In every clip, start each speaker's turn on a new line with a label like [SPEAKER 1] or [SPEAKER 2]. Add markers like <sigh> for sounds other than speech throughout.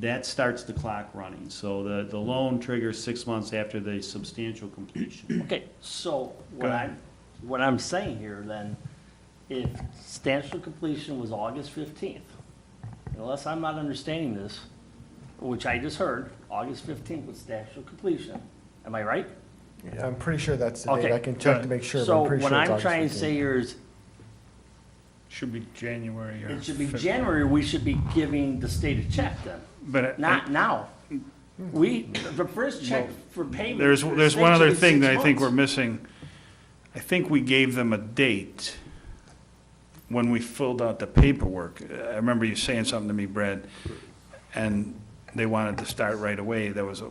[SPEAKER 1] that starts the clock running. So the, the loan triggers six months after the substantial completion.
[SPEAKER 2] Okay, so
[SPEAKER 1] Go
[SPEAKER 2] what
[SPEAKER 1] ahead.
[SPEAKER 2] I'm, what I'm saying here then, if substantial completion was August fifteenth, unless I'm not understanding this, which I just heard, August fifteenth was substantial completion. Am I right?
[SPEAKER 3] I'm pretty sure that's the
[SPEAKER 2] Okay,
[SPEAKER 3] date. I can check to
[SPEAKER 2] good.
[SPEAKER 3] make sure, but I'm pretty sure
[SPEAKER 2] So
[SPEAKER 3] it's
[SPEAKER 2] what I'm
[SPEAKER 3] August
[SPEAKER 2] trying to say
[SPEAKER 3] 15th.
[SPEAKER 2] here is,
[SPEAKER 4] Should be January or.
[SPEAKER 2] it should be
[SPEAKER 4] Feb-
[SPEAKER 2] January, we should be giving the state a check then,
[SPEAKER 4] But I- Hmm.
[SPEAKER 2] not now. We, the first check for payment.
[SPEAKER 4] there's,
[SPEAKER 2] for the
[SPEAKER 4] there's
[SPEAKER 2] state
[SPEAKER 4] one
[SPEAKER 2] should
[SPEAKER 4] other
[SPEAKER 2] be
[SPEAKER 4] thing
[SPEAKER 2] six
[SPEAKER 4] that I think
[SPEAKER 2] months.
[SPEAKER 4] we're missing. I think we gave them a date when we filled out the paperwork. I remember you saying something to me, Brad, and they wanted to start right away. There was a,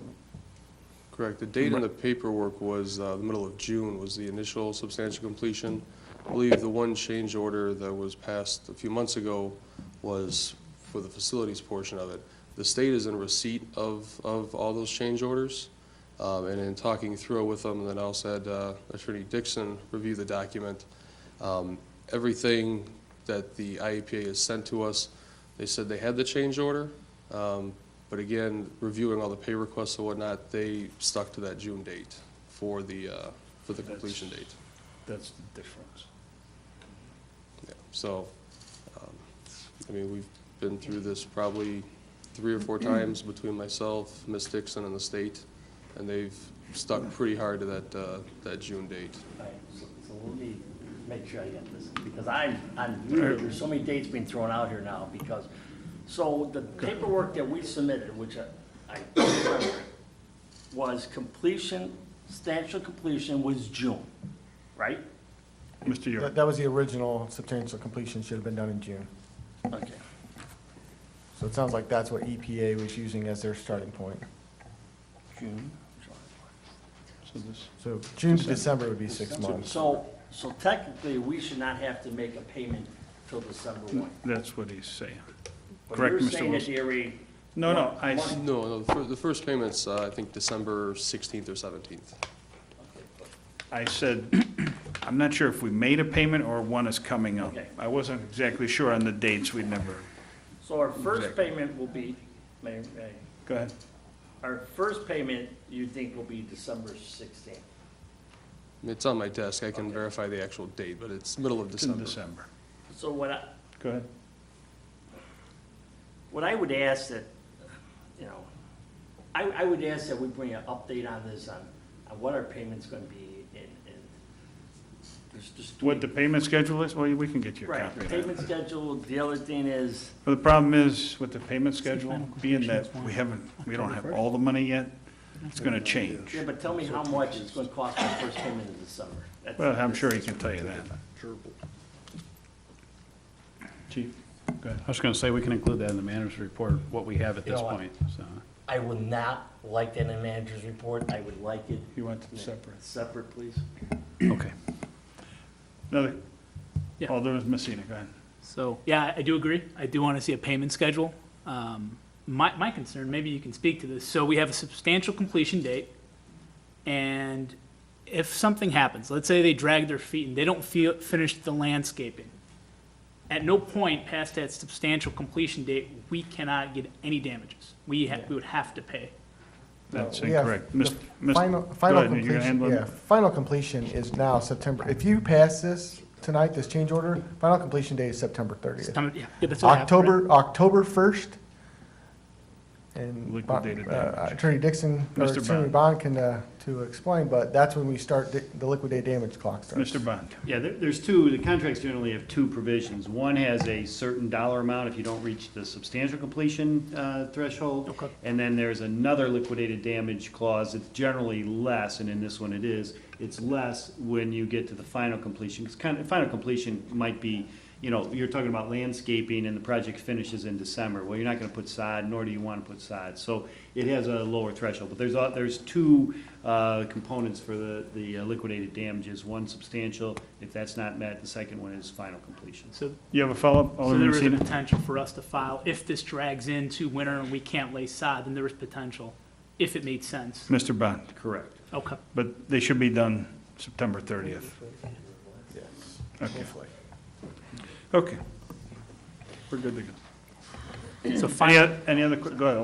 [SPEAKER 5] Correct. The date in the paperwork was uh, the middle of June was the initial substantial completion. I believe the one change order that was passed a few months ago was for the facilities portion of it. The state is in receipt of, of all those change orders. Um, And in talking through it with them, and then I also had uh, Attorney Dixon review the document. Um, Everything that the IEPA has sent to us, they said they had the change order, um, but again, reviewing all the pay requests and whatnot, they stuck to that June date for the, uh, for the completion date.
[SPEAKER 4] that's the difference.
[SPEAKER 5] Yeah. So, um, I mean, we've been through this probably three or four times between myself, Ms. Dixon, and the state, and they've stuck pretty hard to that, uh, that June date.
[SPEAKER 2] Right, so so let me make sure I get this, because I'm, I'm, new. there's so many dates being thrown out here now, because, so the paperwork that we submitted, which I- I don't remember, was completion, substantial completion was June, right?
[SPEAKER 4] Mr. York.
[SPEAKER 3] That- That was the original substantial completion, should have been done in June.
[SPEAKER 2] Okay.
[SPEAKER 3] So it sounds like that's what EPA was using as their starting point.
[SPEAKER 2] June.
[SPEAKER 4] So this-
[SPEAKER 3] So June to December would be six months.
[SPEAKER 2] So, so technically, we should not have to make a payment till December one.
[SPEAKER 4] That's what he's saying.
[SPEAKER 2] But
[SPEAKER 4] Correct,
[SPEAKER 2] You're
[SPEAKER 4] Mr.
[SPEAKER 2] saying that
[SPEAKER 4] Wilson.
[SPEAKER 2] they already.
[SPEAKER 4] No, no, I,
[SPEAKER 2] One-
[SPEAKER 5] No, no, the fir- the first payment's, uh, I think, December 16th or 17th.
[SPEAKER 4] I said, <clears throat> I'm not sure if we made a payment or one is coming up.
[SPEAKER 2] Okay.
[SPEAKER 4] I wasn't exactly sure on the dates. We never,
[SPEAKER 2] So our first payment will be, may, may,
[SPEAKER 4] go ahead.
[SPEAKER 2] Our first payment, you think will be December sixteenth?
[SPEAKER 5] It's on my desk, I can verify the actual date, but it's middle of
[SPEAKER 4] It's in
[SPEAKER 5] December.
[SPEAKER 4] December.
[SPEAKER 2] So what I,
[SPEAKER 4] Go ahead.
[SPEAKER 2] what I would ask that, you know, I, I would ask that we bring an update on this, on, on what our payment's gonna be in, in. there's just-
[SPEAKER 4] What the payment schedule is, well, we can get you a
[SPEAKER 2] Right,
[SPEAKER 4] copy
[SPEAKER 2] the
[SPEAKER 4] of that.
[SPEAKER 2] payment schedule, the other thing is,
[SPEAKER 4] But the problem is with the payment schedule, being that we haven't, we don't have all the money yet, it's gonna change.
[SPEAKER 2] yeah, but tell me how much it's gonna cost my first payment in December. That's-
[SPEAKER 4] Well, I'm sure he can tell you that. Chief, go ahead.
[SPEAKER 6] I was going to say, we can include that in the manager's report, what we have at
[SPEAKER 2] You know
[SPEAKER 6] this
[SPEAKER 2] what?
[SPEAKER 6] point, so.
[SPEAKER 2] I would not like that in a manager's report, I would like it
[SPEAKER 4] You want to separate.
[SPEAKER 2] separate, please.
[SPEAKER 6] Okay.
[SPEAKER 4] Another,
[SPEAKER 7] Yeah.
[SPEAKER 4] Alderman Messina, go ahead.
[SPEAKER 7] So, yeah, I do agree. I do want to see a payment schedule. Um, my, my concern, maybe you can speak to this, so we have a substantial completion date, and if something happens, let's say they drag their feet and they don't feel, finish the landscaping, at no point past that substantial completion date, we cannot get any damages. We ha, we would have to pay.
[SPEAKER 4] That's
[SPEAKER 3] We have
[SPEAKER 4] incorrect.
[SPEAKER 3] the
[SPEAKER 4] Mis- mis-
[SPEAKER 3] Final,
[SPEAKER 4] go
[SPEAKER 3] final
[SPEAKER 4] ahead, you're gonna
[SPEAKER 3] completion,
[SPEAKER 4] handle it?
[SPEAKER 3] yeah, final completion is now September. If you pass this tonight, this change order, final completion date is September thirtieth.
[SPEAKER 7] Some- yeah, yeah, that's what happened, right?
[SPEAKER 3] October, October first. And
[SPEAKER 4] Liquidated
[SPEAKER 3] Bon- uh,
[SPEAKER 4] damage.
[SPEAKER 3] Attorney Dixon, or
[SPEAKER 4] Mr.
[SPEAKER 3] Attorney Bond can, uh, to explain, but that's when we start, the- the liquidated damage clock starts.
[SPEAKER 4] Mr. Bond,
[SPEAKER 1] Yeah, there, there's two, the contracts generally have two provisions. One has a certain dollar amount if you don't reach the substantial completion, uh, threshold.
[SPEAKER 7] Okay.
[SPEAKER 1] And then there's another liquidated damage clause. It's generally less, and in this one it is, it's less when you get to the final completion. Because kind of, final completion might be, you know, you're talking about landscaping and the project finishes in December. Well, you're not gonna put sod, nor do you wanna put sod. So it has a lower threshold, but there's, a- there's two, uh, components for the, the uh, liquidated damages. One substantial, if that's not met, the second one is final completion.
[SPEAKER 7] So
[SPEAKER 4] you have a follow-up,
[SPEAKER 7] So there
[SPEAKER 4] Alderman
[SPEAKER 7] is a
[SPEAKER 4] Messina?
[SPEAKER 7] potential for us to file, if this drags into winter and we can't lay sod, then there is potential, if it made sense.
[SPEAKER 4] Mr. Bond,
[SPEAKER 1] Correct.
[SPEAKER 7] Okay.
[SPEAKER 4] but they should be done September 30th. Okay. Okay. We're good to go. Any,
[SPEAKER 7] So final.
[SPEAKER 4] oth- any other, que- go ahead,